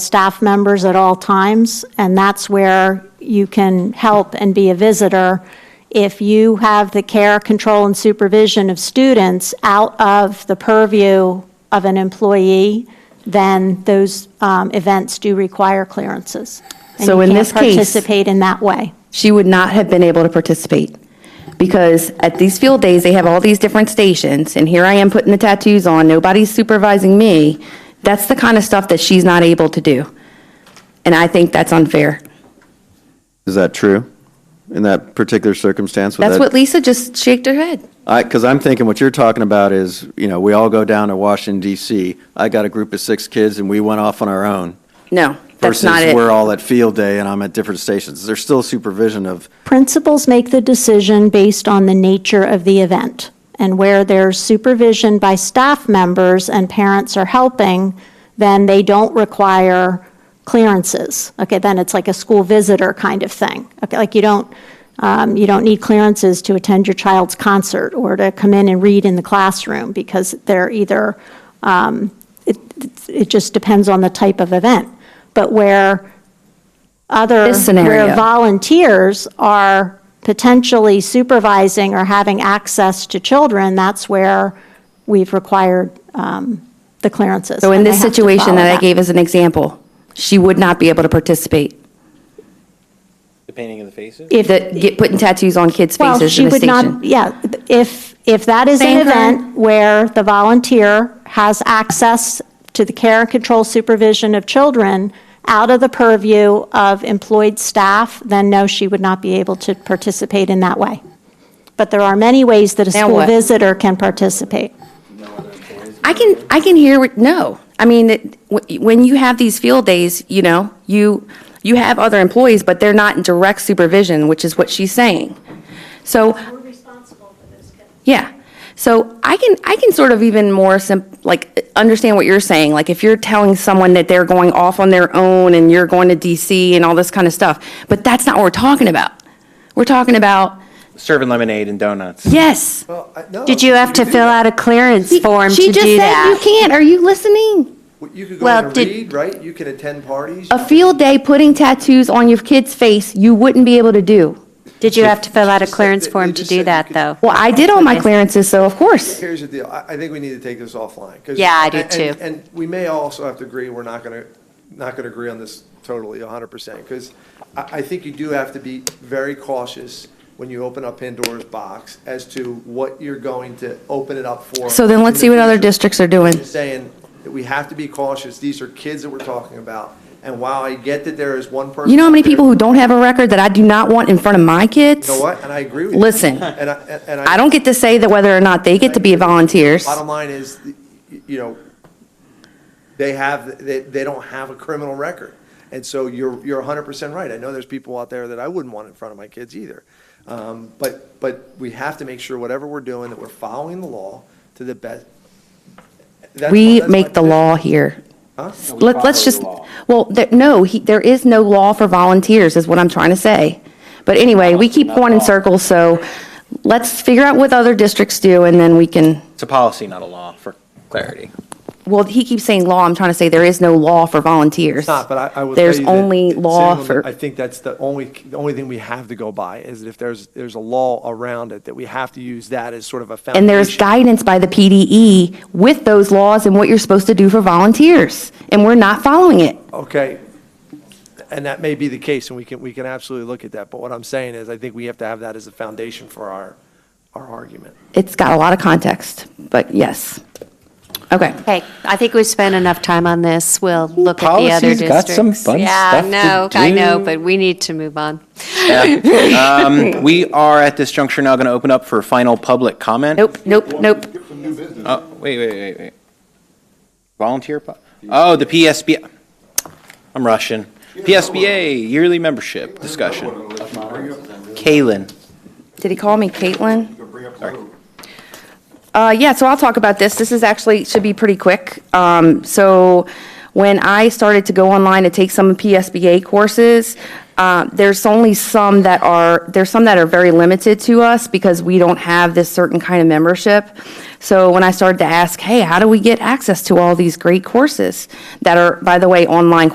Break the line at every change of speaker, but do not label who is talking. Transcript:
staff members at all times, and that's where you can help and be a visitor. If you have the care, control, and supervision of students out of the purview of an employee, then those um, events do require clearances. And
So
you
in
can't
this case-
Participate in that way.
she would not have been able to participate. Because at these field days, they have all these different stations, and here I am putting the tattoos on, nobody's supervising me. That's the kind of stuff that she's not able to do. And I think that's unfair.
Is that true? In that particular circumstance? would
That's
that-
what Lisa just shaked her head.
I, because I'm thinking what you're talking about is, you know, we all go down to Washington DC. I got a group of six kids and we went off on our own.
No, that's not
Versus we're
it.
all at field day and I'm at different stations. There's still supervision of,
Principals make the decision based on the nature of the event. And where there's supervision by staff members and parents are helping, then they don't require clearances. Okay, then it's like a school visitor kind of thing. Okay, like you don't, um, you don't need clearances to attend your child's concert or to come in and read in the classroom because they're either, um, it, it just depends on the type of event. But where other,
This scenario.
where volunteers are potentially supervising or having access to children, that's where we've required um, the clearances.
So in
and
this
they have to
situation
follow
that I gave as an example, she would not be able to participate.
The painting of the faces?
If-
The, get, putting tattoos on kids'
Well,
faces
she
in a
would not,
station.
yeah, if, if that is an
Thank her.
event where the volunteer has access to the care and control supervision of children out of the purview of employed staff, then no, she would not be able to participate in that way. But there are many ways that a
Now
school
what?
visitor can participate.
I can, I can hear, what- no. I mean, it- wh- when you have these field days, you know, you, you have other employees, but they're not in direct supervision, which is what she's saying. So,
We're responsible for those kids.
yeah. So I can, I can sort of even more sim, like, understand what you're saying. Like, if you're telling someone that they're going off on their own and you're going to DC and all this kind of stuff, but that's not what we're talking about. We're talking about,
Serving lemonade and donuts.
yes.
Did you have to fill out a clearance form to
She
do
just said you
that?
can't. Are you listening?
You could go
Well,
in and
did-
read, right? You could attend parties.
a field day putting tattoos on your kid's face you wouldn't be able to do.
Did you have to fill out a
Just said
clearance
that-
form
they
to
just
do
said you
that,
could-
though?
Well, I did all my clearances, so of course.
Here's the deal. I, I think we need to take this offline. 'cause-
Yeah, I do
and-
too.
And, and we may also have to agree, we're not going to, not going to agree on this totally hundred percent. Because I, I think you do have to be very cautious when you open up Pandora's box as to what you're going to open it up for.
So then let's
in the
see what other
future.
districts are doing.
Just Saying that we have to be cautious. These are kids that we're talking about. And while I get that there is one person.
You know how many people who don't have a record that I do not want in front of my kids?
You know what? And I agree with you.
Listen.
And I, and- and I.
I don't get to say that whether or not they get to be volunteers.
Bottom line is, you know, they have, they, they don't have a criminal record. And so you're, you're hundred percent right. I know there's people out there that I wouldn't want in front of my kids either. Um, but, but we have to make sure whatever we're doing, that we're following the law to the best. That's my-
We
that's my
make the
position.
law here.
Huh?
Let, let's just, well, there, no, he, there is no law for volunteers, is what I'm trying to say. But anyway, we keep going in circles, so let's figure out what other districts do, and then we can,
It's a policy, not a law, for clarity.
well, he keeps saying law, I'm trying to say there is no law for volunteers.
It's not, but I, I will tell
There's
you that
only
sitting
law
on the-
for-
I think that's the only, the only thing we have to go by is that if there's, there's a law around it, that we have to use that as sort of a foundation.
And there's guidance by the PDE with those laws and what you're supposed to do for volunteers, and we're not following it.
Okay. And that may be the case, and we can, we can absolutely look at that, but what I'm saying is, I think we have to have that as a foundation for our, our argument.
It's got a lot of context, but yes. Okay.
Okay, I think we've spent enough time on this. We'll look at the other
Policy's got
districts.
some fun stuff to
Yeah, I know, I know,
do.
but we need to move on.
Um, We are at this juncture now going to open up for final public comment.
Nope, nope, nope.
Oh, wait, wait, wait, wait. Volunteer? po- Oh, the PSB, I'm Russian. PSBA yearly membership discussion. Kalen.
Did he call me Caitlin? Uh, yeah, so I'll talk about this. This is actually, should be pretty quick. Um, so when I started to go online to take some PSBA courses, uh, there's only some that are, there's some that are very limited to us because we don't have this certain kind of membership. So when I started to ask, hey, how do we get access to all these great courses that are, by the way, online